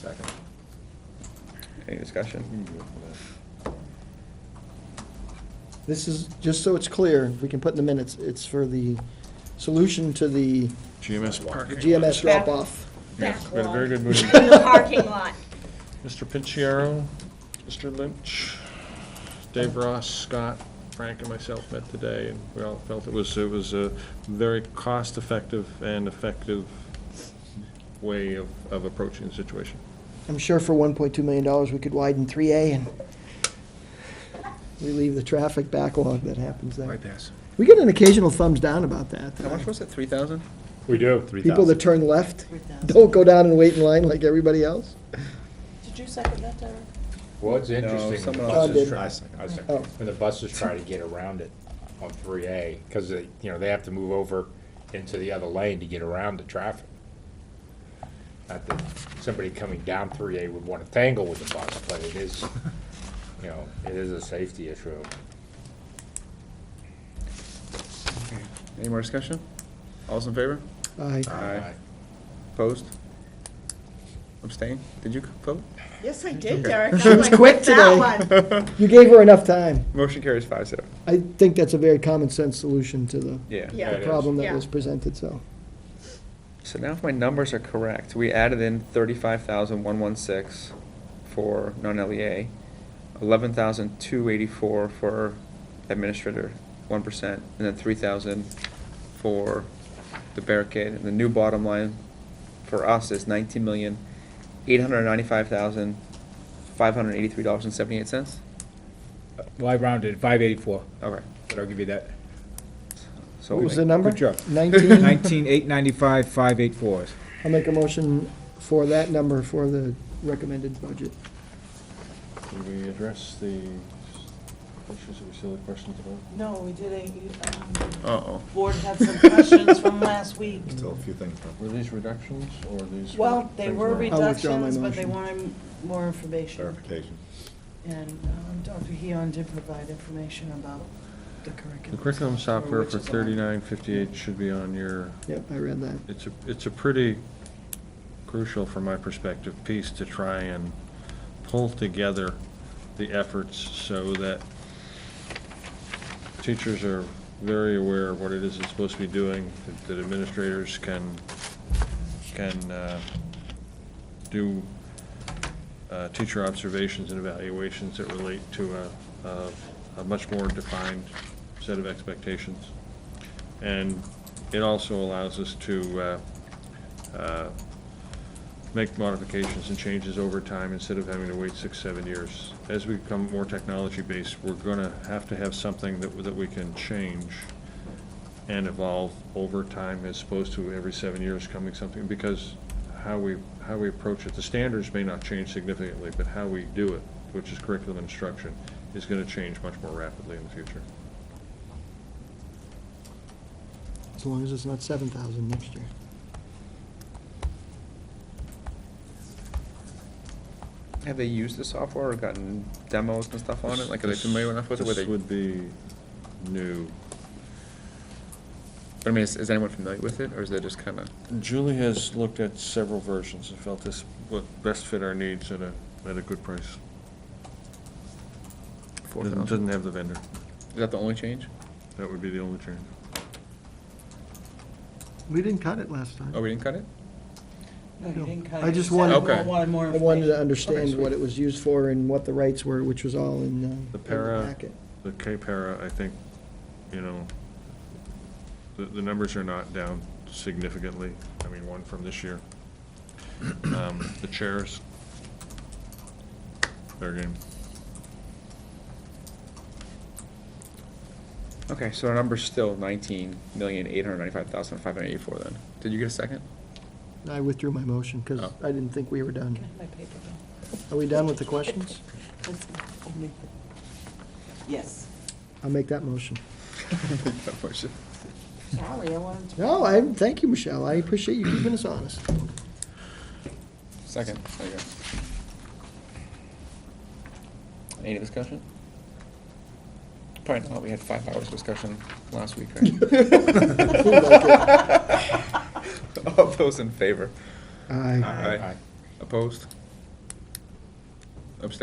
Second. Any discussion? This is, just so it's clear, we can put in the minutes, it's for the solution to the GMS Park. GMS drop-off. Yes, we had a very good meeting. In the parking lot. Mr. Pinciero, Mr. Lynch, Dave Ross, Scott, Frank, and myself met today, and we all felt it was, it was a very cost-effective and effective way of, of approaching the situation. I'm sure for $1.2 million, we could widen 3A and relieve the traffic backlog that happens there. pass. We get an occasional thumbs down about that. How much was it, three thousand? We do. People that turn left don't go down and wait in line like everybody else. Did you second that, Derek? Well, it's No, interesting, when the someone else did. buses try, I second- I second. Oh. when the buses try to get around it on three A, because they, you know, they have to move over into the other lane to get around the traffic. Not that somebody coming down three A would want to tangle with the bus, but it is, you know, it is a safety issue. Any more discussion? All's in favor? Aye. Aye. Opposed? Abstain? Did you vote? Yes, I did, Derek. She I'm was like, quick "What's that one?" You gave her enough time. Motion carries five zero. I think that's a very common-sense solution to the Yeah. Yeah. It is. problem that Yeah. was presented, so. So now if my numbers are correct, we added in thirty-five thousand one one six for non-LEA, eleven thousand two eighty-four for administrator, one percent, and then three thousand for the barricade. And the new bottom line for us is nineteen million eight hundred ninety-five thousand five hundred eighty-three dollars and seventy-eight cents? Well, I rounded five eighty-four, Okay. but I'll give you that. So What we was the make- number? Good job. 19? Nineteen, eight ninety-five, five eight fours. I'll make a motion for that number for the recommended budget. Did we address the questions, that we still have questions about? No, we did a, um, Uh-oh. board had some questions from last week. Still a few things left. Were these reductions, or these? Well, they things were were- I'll withdraw my reductions, but they motion. wanted more information. Clarification. And um, Dr. Heon did provide information about the curriculum. The curriculum software, software which for is on- thirty-nine fifty-eight should be on your Yep, I read that. It's a, it's a pretty crucial, from my perspective, piece to try and pull together the efforts so that teachers are very aware of what it is it's supposed to be doing, that- that administrators can, can uh, do uh, teacher observations and evaluations that relate to a, a- a much more defined set of expectations. And it also allows us to uh, uh, make modifications and changes over time instead of having to wait six, seven years. As we become more technology-based, we're going to have to have something that, that we can change and evolve over time as opposed to every seven years coming something, because how we, how we approach it, the standards may not change significantly, but how we do it, which is curriculum instruction, is going to change much more rapidly in the future. As long as it's not seven thousand next year. Have they used the software or gotten demos and stuff on it? Like, are they familiar enough with it? where This they- would be new. But I mean, is, is anyone familiar with it, or is it just kind of? Julie has looked at several versions and felt this would best fit our needs at a, at a good price. Doesn't doesn't have the vendor. Is that the only change? That would be the only change. We didn't cut it last time. Oh, we didn't cut it? No, you didn't cut it. I You just said wanted- you Okay. Wanted more I information. wanted to Okay, understand sweet. what it was used for and what the rights were, which was all in, uh, in The the para, packet. the K-para, I think, you know, the, the numbers are not down significantly. I mean, one from this year. Um, The chairs, fair game. Okay, so our number's still nineteen million, eight hundred ninety-five thousand, five hundred eighty-four then. Did you get a second? I withdrew my motion because Oh. I didn't think we were done. Can I have my paper bill? Are we done with the questions? That's the only thing. Yes. I'll make that motion. Sorry, I wanted to. No, I, thank you, Michelle. I appreciate you keeping us honest. Second, there you go. Any discussion? Probably not, we had five hours of discussion last week, right? All those in favor? Aye. Opposed?